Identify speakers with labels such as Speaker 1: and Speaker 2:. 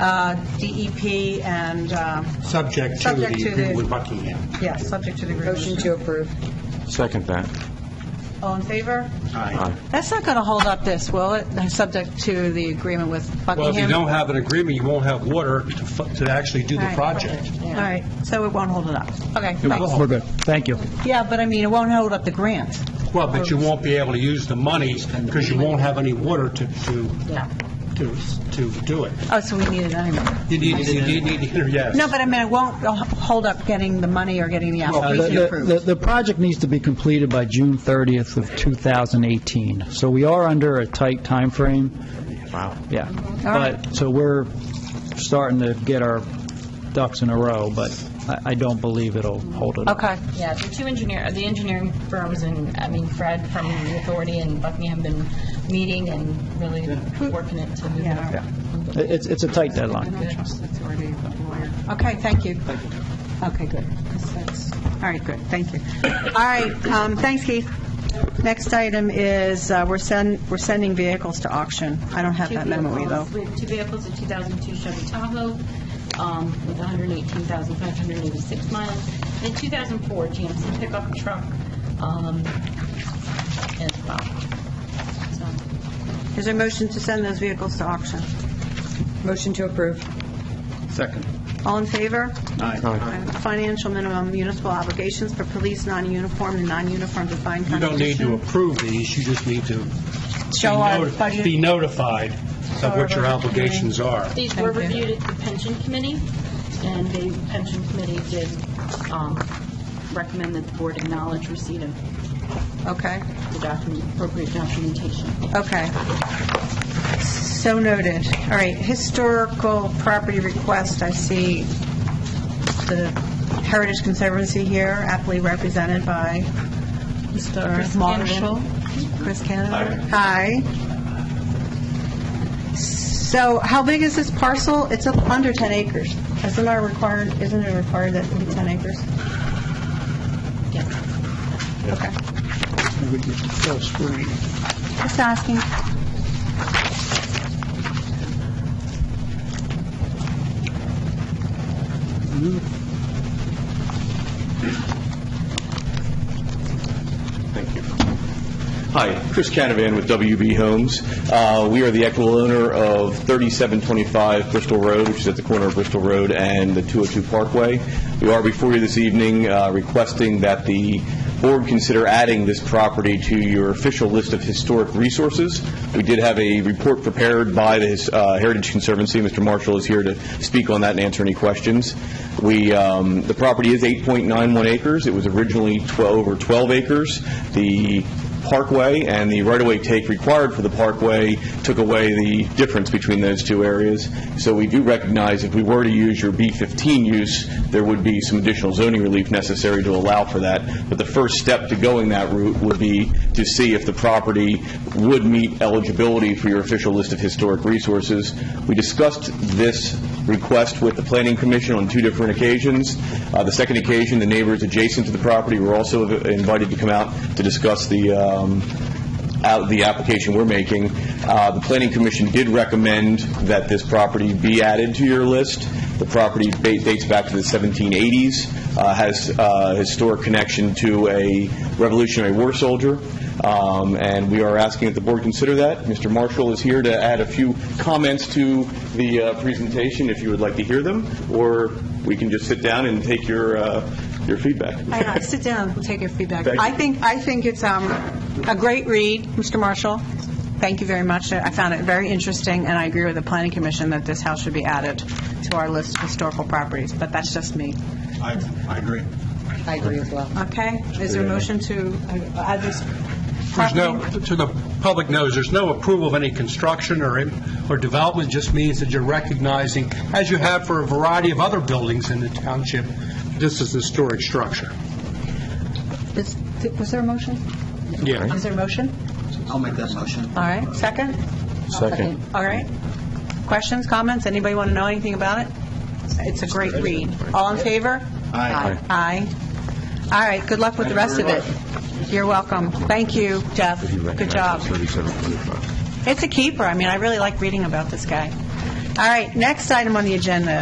Speaker 1: uh, DEP and, um,
Speaker 2: Subject to the
Speaker 1: Subject to
Speaker 2: agreement
Speaker 1: the-
Speaker 2: with Buckingham.
Speaker 1: yeah, subject to the agreement.
Speaker 3: Motion to approve.
Speaker 4: Second that.
Speaker 1: All in favor?
Speaker 2: Aye.
Speaker 1: That's not going to hold up this, will it? Subject to the agreement with Buckingham?
Speaker 2: Well, if you don't have an agreement, you won't have water to fu- to actually do the
Speaker 1: Right.
Speaker 2: project.
Speaker 1: All right, so it won't hold it up. Okay,
Speaker 2: will.
Speaker 1: thanks.
Speaker 5: We're good. Thank you.
Speaker 1: Yeah, but I mean, it won't hold up the grant.
Speaker 2: Well, but you won't be able to use the money because you won't have any water to, to, to to do it.
Speaker 1: Oh, so we need it anyway.
Speaker 2: You need, you need- need, to- yes.
Speaker 1: No, but I mean, it won't uh, hold up getting the money or getting the
Speaker 2: Well,
Speaker 1: application
Speaker 5: Oh, The- The
Speaker 1: approved.
Speaker 5: the project needs to be completed by June 30th of 2018, so we are under a tight timeframe. Wow. Yeah.
Speaker 1: right.
Speaker 5: But, so we're starting to get our ducks in a row, but I I don't believe it'll hold it up.
Speaker 1: Okay.
Speaker 6: Yeah, the two engineer, the engineering firms and, I mean, Fred from the authority and Buckingham been meeting and really working it to move it
Speaker 1: Yeah.
Speaker 6: up.
Speaker 5: It- It's it's a tight deadline.
Speaker 1: Okay, thank you. Okay, good. All right, good, thank you. All right, um, thanks, Keith. Next item is, uh, we're send, we're sending vehicles to auction. I don't have
Speaker 6: Two
Speaker 1: that memo either.
Speaker 6: vehicles- We have two vehicles, a 2002 Chevy Tahoe um, with 118,586 miles, and a 2004 GMC pickup truck um, as well. So,
Speaker 1: Is there a motion to send those vehicles to auction?
Speaker 3: Motion to approve.
Speaker 2: Second.
Speaker 1: All in favor?
Speaker 2: Aye.
Speaker 1: Financial minimum municipal obligations for police non-uniform and non-uniform defined
Speaker 2: You don't need
Speaker 1: contribution.
Speaker 2: to approve these, you just need to be
Speaker 1: Show our
Speaker 2: noti-
Speaker 1: budget.
Speaker 2: be notified of what your obligations are.
Speaker 6: These were
Speaker 1: Thank you.
Speaker 6: reviewed at the pension committee, and the pension committee did um, recommend that the board acknowledge receipt of
Speaker 1: Okay,
Speaker 6: the document, appropriate documentation.
Speaker 1: okay. So noted. All right, historical property request, I see the Heritage Conservancy here, aptly represented by Mr. Marshall. Chris Canada. Hi. So how big is this parcel? It's up under 10 acres. Isn't our required, isn't it required that it be 10 acres?
Speaker 6: Yes.
Speaker 1: Okay. Just asking.
Speaker 7: Thank you. Hi, Chris Canavan with WB Homes. Uh, We are the equal owner of 3725 Bristol Road, which is at the corner of Bristol Road and the 202 Parkway. We are before you this evening uh, requesting that the board consider adding this property to your official list of historic resources. We did have a report prepared by the His- uh, Heritage Conservancy. Mr. Marshall is here to speak on that and answer any questions. We, um, the property is 8.91 acres. It was originally 12 or 12 acres. The parkway and the right-of-way take required for the parkway took away the difference between those two areas. So we do recognize if we were to use your B-15 use, there would be some additional zoning relief necessary to allow for that. But the first step to going that route would be to see if the property would meet eligibility for your official list of historic resources. We discussed this request with the Planning Commission on two different occasions. Uh, The second occasion, the neighbors adjacent to the property were also invited to come out to discuss the, um, out the application we're making. Uh, The Planning Commission did recommend that this property be added to your list. The property ba- dates back to the 1780s, uh, has uh, historic connection to a Revolutionary War soldier, um, and we are asking that the board consider that. Mr. Marshall is here to add a few comments to the uh, presentation, if you would like to hear them, or we can just sit down and take your uh, your feedback.
Speaker 1: Hang on, Uh, sit down, we'll take your feedback.
Speaker 7: Thank you.
Speaker 1: I think, I think it's um, a great read, Mr. Marshall. Thank you very much. I found it very interesting, and I agree with the Planning Commission that this house should be added to our list of historical properties, but that's just me.
Speaker 2: I agree.
Speaker 3: I agree as well.
Speaker 1: Okay? Is there a motion to uh, add this
Speaker 2: There's
Speaker 1: property?
Speaker 2: no, to the public knows, there's no approval of any construction or, im- or development, It just means that you're recognizing, as you have for a variety of other buildings in the township, this is the historic structure.
Speaker 1: Is- th- Was there a motion?
Speaker 2: Yeah.
Speaker 1: Is there a motion?
Speaker 8: I'll make that motion.
Speaker 1: All right, second?
Speaker 4: Second.
Speaker 1: All right. Questions, comments? Anybody want to know anything about it? It's a great read. All in favor?
Speaker 8: Aye.
Speaker 1: Aye. All right, good luck with the rest of it. You're welcome. Thank you, Jeff. Good job. It's a keeper. I mean, I really like reading about this guy. All right, next item on the agenda